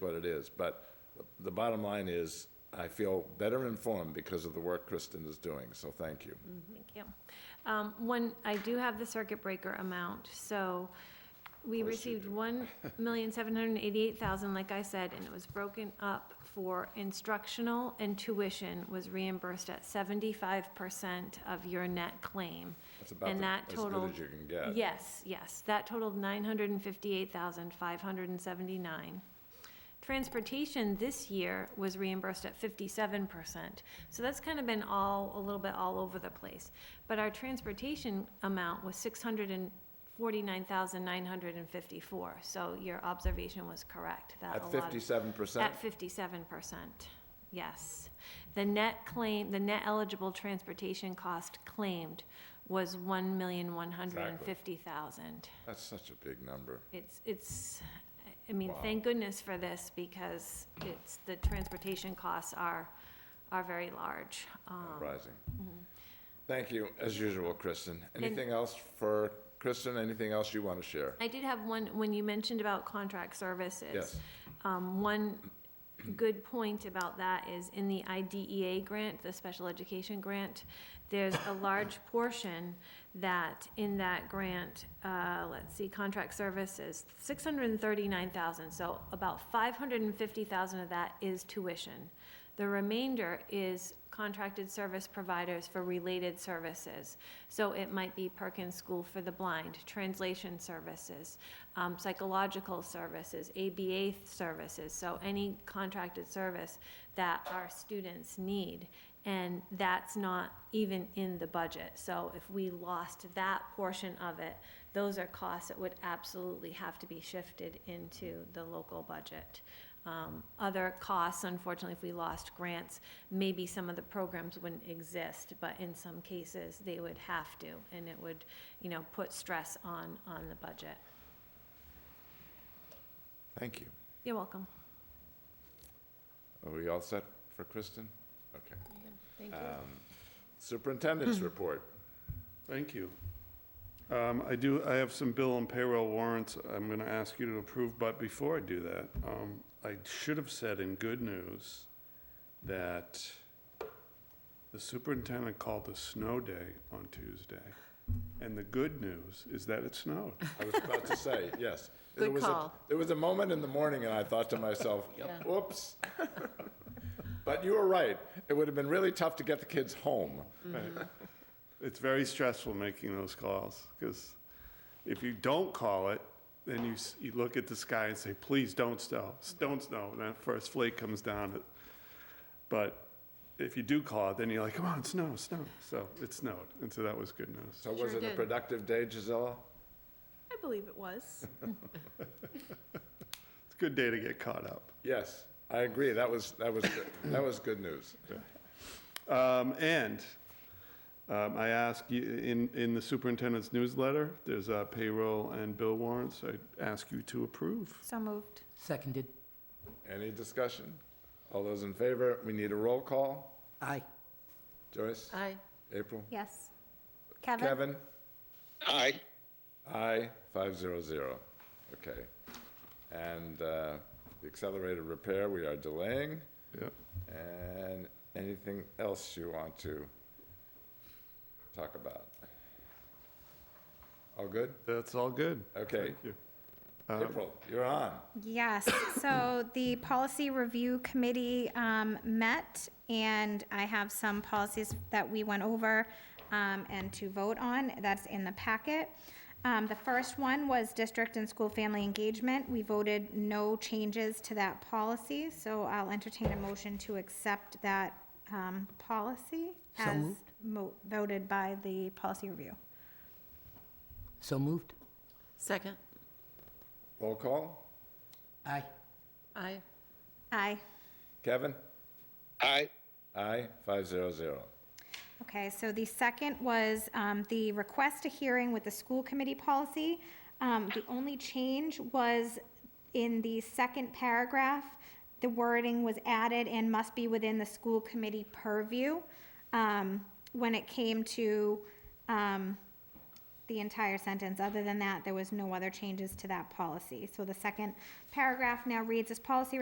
what it is. But the bottom line is, I feel better informed because of the work Kristen is doing, so thank you. Thank you. Um, One, I do have the circuit breaker amount, so we received one million seven hundred and eighty-eight thousand, like I said, and it was broken up for instructional and tuition was reimbursed at seventy-five percent of your net claim. That's about And the- that as good totaled- as you can get. Yes, yes, that totaled nine hundred and fifty-eight thousand five hundred and seventy-nine. Transportation this year was reimbursed at fifty-seven percent. So that's kind of been all, a little bit all over the place. But our transportation amount was six hundred and forty-nine thousand nine hundred and fifty-four. So your observation was correct, that a At lot of- fifty-seven percent, at fifty-seven percent, yes. The net claim, the net eligible transportation cost claimed was one million, one hundred and fifty thousand. that's such a big number. It's, it's, I mean, thank goodness for this, because it's, the transportation costs are, are very large. Um, Rising. Thank you, as usual, Kristen. Anything else for Kristen? Anything else you want to share? I did have one, when you mentioned about contract services. Yes. Um, one good point about that is in the IDEA grant, the special education grant, there's a large portion that in that grant, uh, let's see, contract services, six hundred and thirty-nine thousand, so about five hundred and fifty thousand of that is tuition. The remainder is contracted service providers for related services. So it might be Perkins School for the Blind, translation services, um, psychological services, ABA services. So any contracted service that our students need. And that's not even in the budget. So if we lost that portion of it, those are costs that would absolutely have to be shifted into the local budget. Um, Other costs, unfortunately, if we lost grants, maybe some of the programs wouldn't exist, but in some cases, they would have to, and it would, you know, put stress on, on the budget. Thank you. You're welcome. Are we all set for Kristen? Okay. Thank Um, Superintendent's report. Thank you. Um, I do, I have some bill and payroll warrants I'm going to ask you to approve, but before I do that, um, I should have said in good news that the superintendent called a snow day on Tuesday, and the good news is that it snowed. I was about to say, yes. There Good was a- call. There was a moment in the morning, and I thought to myself, Yeah. whoops. But you were right. It would have been really tough to get the kids home. It's very stressful making those calls, because if you don't call it, then you, s- you look at the sky and say, please don't snow, s- don't snow, and that first flake comes down. it- But if you do call it, then you're like, come on, snow, snow, so it snowed, and so that was good news. So was Sure it a did. productive day, Gisella? I believe it was. It's a good day to get caught up. Yes, I agree. That was, that was, good. that was good news. Um, and, um, I ask you, in, in the superintendent's newsletter, there's uh, payroll and bill warrants, I ask you to approve. So moved. Seconded. Any discussion? All those in favor? We need a roll call. Aye. Joyce? Aye. April? Yes. Kevin? Aye. Aye, five zero zero. Okay. And uh, the accelerated repair, we are delaying. Yep. And anything else you want to talk about? All good? That's all good. Okay. Thank you. Um, April, you're on. Yes, so the policy review committee um, met, and I have some policies that we went over um, and to vote on, that's in the packet. Um, The first one was district and school family engagement. We voted no changes to that policy, so I'll entertain a motion to accept that um, policy So as moved. mo- voted by the policy review. So moved. Second. Roll call? Aye. Aye. Aye. Kevin? Aye. Aye, five zero zero. Okay, so the second was um, the request a hearing with the school committee policy. Um, The only change was in the second paragraph, the wording was added and must be within the school committee purview um, when it came to um, the entire sentence. Other than that, there was no other changes to that policy. So the second paragraph now reads, "This policy